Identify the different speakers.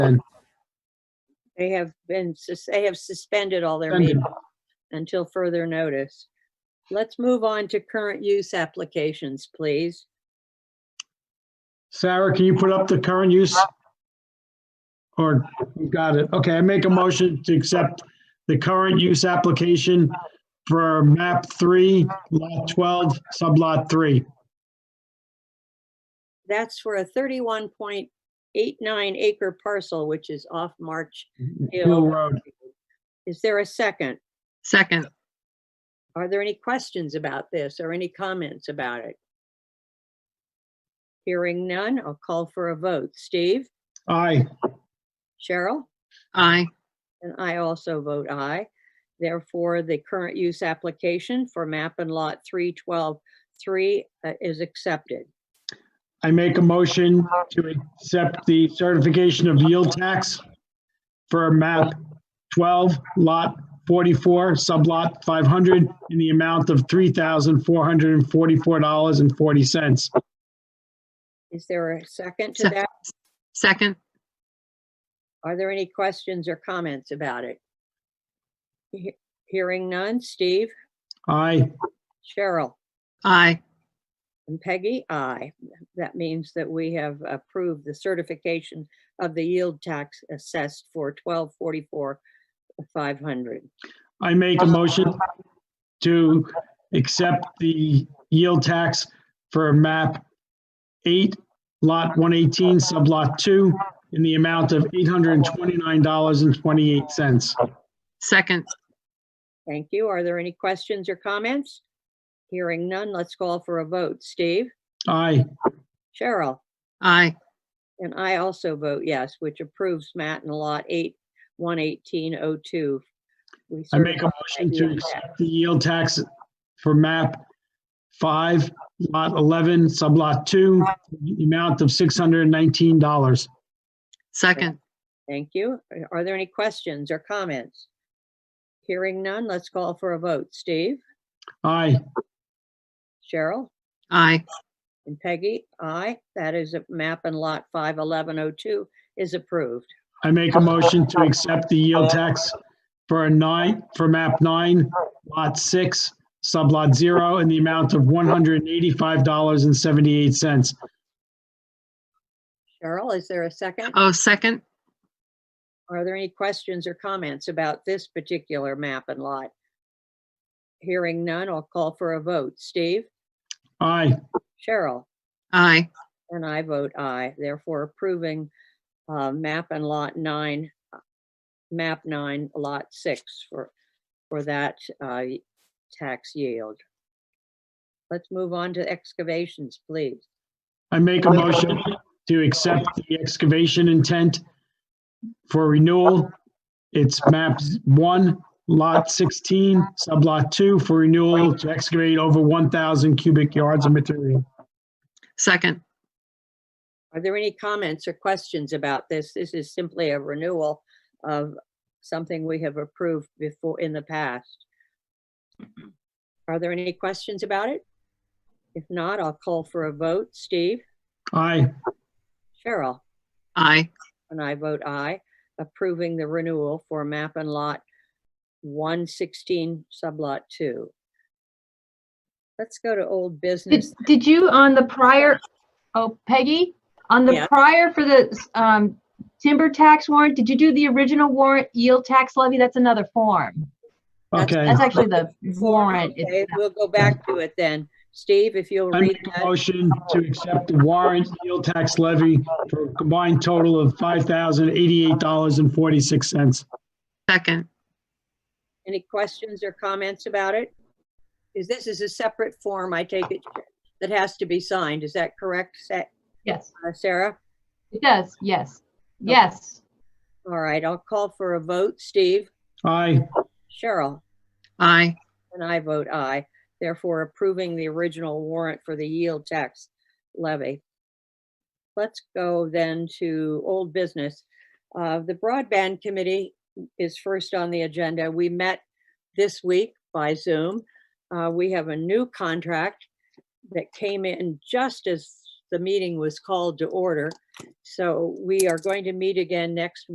Speaker 1: then.
Speaker 2: They have been, sus- they have suspended all their meetings until further notice. Let's move on to current use applications, please.
Speaker 1: Sarah, can you put up the current use? Or, you got it. Okay, I make a motion to accept the current use application for map three, lot 12, sublot three.
Speaker 2: That's for a thirty-one point eight nine acre parcel, which is off March
Speaker 1: Mm-hmm. Hill
Speaker 2: Hill.
Speaker 1: Road.
Speaker 2: Is there a second?
Speaker 3: Second,
Speaker 2: Are there any questions about this or any comments about it? Hearing none, I'll call for a vote. Steve,
Speaker 1: Aye.
Speaker 2: Cheryl?
Speaker 3: aye.
Speaker 2: And I also vote aye. Therefore, the current use application for map and lot 3123 uh, is accepted.
Speaker 1: I make a motion to accept the certification of yield tax for map 12, lot 44, sublot 500, in the amount of $3,444.40.
Speaker 2: Is there a second to
Speaker 3: Se-
Speaker 2: that?
Speaker 3: Second,
Speaker 2: Are there any questions or comments about it? He- Hearing none. Steve,
Speaker 1: Aye.
Speaker 2: Cheryl,
Speaker 3: aye.
Speaker 2: and Peggy, aye. That means that we have approved the certification of the yield tax assessed for 1244 500.
Speaker 1: I make a motion to accept the yield tax for map eight, lot one eighteen, sub lot two, in the amount of eight hundred and twenty-nine dollars and twenty-eight cents.
Speaker 3: Second,
Speaker 2: Thank you. Are there any questions or comments? Hearing none, let's call for a vote. Steve?
Speaker 1: Aye.
Speaker 2: Cheryl?
Speaker 3: aye.
Speaker 2: And I also vote yes, which approves Matt and Lot 8, 11802. We
Speaker 1: I make a
Speaker 2: certify
Speaker 1: motion
Speaker 2: that
Speaker 1: to
Speaker 2: yield tax.
Speaker 1: accept the yield tax for map five, lot eleven, sub lot two, in the amount of six hundred and nineteen dollars.
Speaker 3: Second,
Speaker 2: Thank you. Are- Are there any questions or comments? Hearing none, let's call for a vote. Steve?
Speaker 1: Aye.
Speaker 2: Cheryl?
Speaker 3: aye.
Speaker 2: And Peggy? Aye. That is a map and Lot 51102 is approved.
Speaker 1: I make a motion to accept the yield tax for a nine, for map nine, lot six, sublot zero, in the amount of one hundred and eighty-five dollars and seventy-eight cents.
Speaker 2: Cheryl, is there a second?
Speaker 3: Oh, second,
Speaker 2: Are there any questions or comments about this particular map and lot? Hearing none, I'll call for a vote. Steve?
Speaker 1: Aye,
Speaker 2: Cheryl?
Speaker 3: aye.
Speaker 2: And I vote aye, therefore approving uh, map and lot nine, uh, map nine, lot six for, for that uh, y- tax yield. Let's move on to excavations, please.
Speaker 1: I make a motion to accept the excavation intent for renewal. It's map one, lot sixteen, sublot two, for renewal to excavate over one thousand cubic yards of material.
Speaker 3: Second,
Speaker 2: Are there any comments or questions about this? This is simply a renewal of something we have approved before, in the past. Are there any questions about it? If not, I'll call for a vote. Steve?
Speaker 1: Aye.
Speaker 2: Cheryl?
Speaker 3: aye.
Speaker 2: And I vote aye, approving the renewal for map and lot 116, sublot 2. Let's go to old
Speaker 4: Did,
Speaker 2: business.
Speaker 4: did you on the prior, oh Peggy, on
Speaker 2: Yeah.
Speaker 4: the prior for the um, timber tax warrant, did you do the original warrant yield tax levy? That's another form.
Speaker 2: That's-
Speaker 1: Okay.
Speaker 4: That's actually the warrant.
Speaker 2: Okay,
Speaker 4: It's-
Speaker 2: We'll go back to it then. Steve, if you'll
Speaker 1: I
Speaker 2: read
Speaker 1: make a
Speaker 2: that,
Speaker 1: motion to accept the warrant yield tax levy for a combined total of $5,088.46.
Speaker 3: Second,
Speaker 2: any questions or comments about it? Is this is a separate form, I take it, that has to be signed, is that correct, Sa-
Speaker 4: Yes,
Speaker 2: uh, Sarah?
Speaker 4: it does. Yes, yes,
Speaker 2: All right, I'll call for a vote. Steve?
Speaker 1: Aye,
Speaker 2: Cheryl?
Speaker 3: aye.
Speaker 2: And I vote aye, therefore approving the original warrant for the yield tax levy. Let's go then to old business. Uh, The broadband committee is first on the agenda. We met this week by Zoom. Uh, We have a new contract that came in just as the meeting was called to order. So we are going to meet again next